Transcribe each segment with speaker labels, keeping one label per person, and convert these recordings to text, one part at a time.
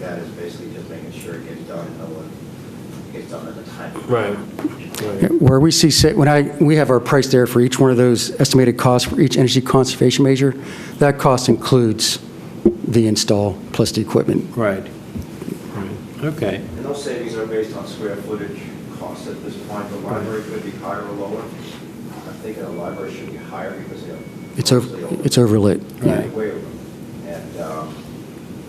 Speaker 1: that is basically just making sure it gets done, and no one gets done at a time.
Speaker 2: Right. Right.
Speaker 3: Where we see, sa- when I, we have our price there for each one of those estimated costs for each energy conservation measure, that cost includes the install plus the equipment.
Speaker 2: Right. Okay.
Speaker 1: And those savings are based on square footage costs at this point. The library could be higher or lower. I'm thinking the library should be higher because they are.
Speaker 3: It's, over. it's overlit.
Speaker 2: Right.
Speaker 1: Way over. And um,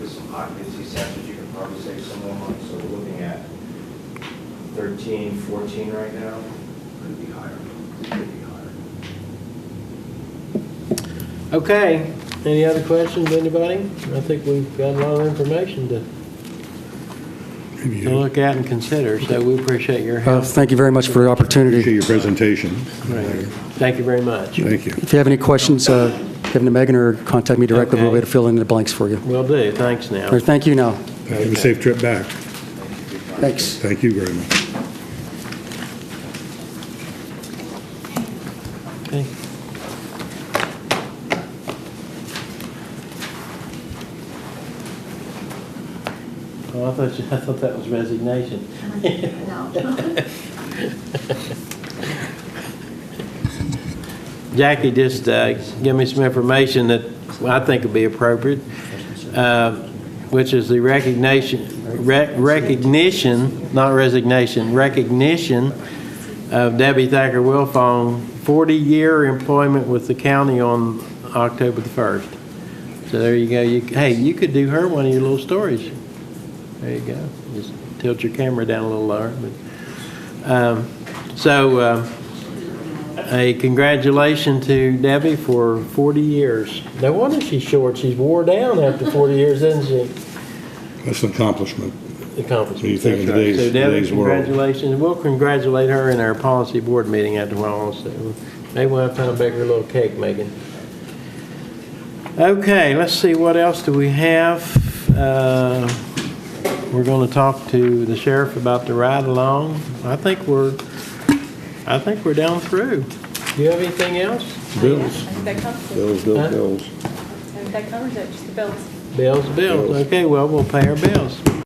Speaker 1: with some occupancy centers, you can probably save some more money. So we're looking at 13, 14 right now. Could be higher. Could be higher.
Speaker 2: Okay. Any other questions, anybody? I think we've got a lot of information to to look at and consider, so we appreciate your
Speaker 3: Uh,
Speaker 2: help.
Speaker 3: Thank you very much for the
Speaker 4: Appreciate
Speaker 3: opportunity.
Speaker 4: your presentation.
Speaker 2: Right. Thank you very much.
Speaker 4: Thank you.
Speaker 3: If you have any questions, uh, give them to Megan or contact me directly. We'll
Speaker 2: Okay.
Speaker 3: be able to fill in the blanks for you.
Speaker 2: Will do, thanks now.
Speaker 3: All right, thank you now.
Speaker 4: Have a safe trip back.
Speaker 3: Thanks.
Speaker 4: Thank you very much.
Speaker 2: Okay. Oh, I thought, you- I thought that was resignation. Jackie just uh, gave me some information that I think would be appropriate, uh, which is the recognition, rec- recognition, not resignation, recognition of Debbie Thacker Wilfong, 40-year employment with the county on October the 1st. So there you go. You- Hey, you could do her one of your little stories. There you go. Just tilt your camera down a little lower. but, um, So uh, a congratulation to Debbie for 40 years. No wonder she's short. She's wore down after 40 years, isn't she?
Speaker 4: That's an accomplishment.
Speaker 2: Accomplishment.
Speaker 4: What do you think in
Speaker 2: That's right.
Speaker 4: today's-
Speaker 2: So Debbie,
Speaker 4: today's world?
Speaker 2: congratulations. We'll congratulate her in our policy board meeting after a while also. Maybe we'll have time to bake her a little cake, Megan. Okay, let's see, what else do we have? Uh, We're going to talk to the sheriff about the ride-along. I think we're, I think we're down through. Do you have anything else?
Speaker 4: Bills,
Speaker 5: I think that covers it.
Speaker 4: bills, bills, bills.
Speaker 5: I think that covers it, just the bills.
Speaker 2: Bills, bills.
Speaker 4: Bills.
Speaker 2: Okay, well, we'll pay our bills.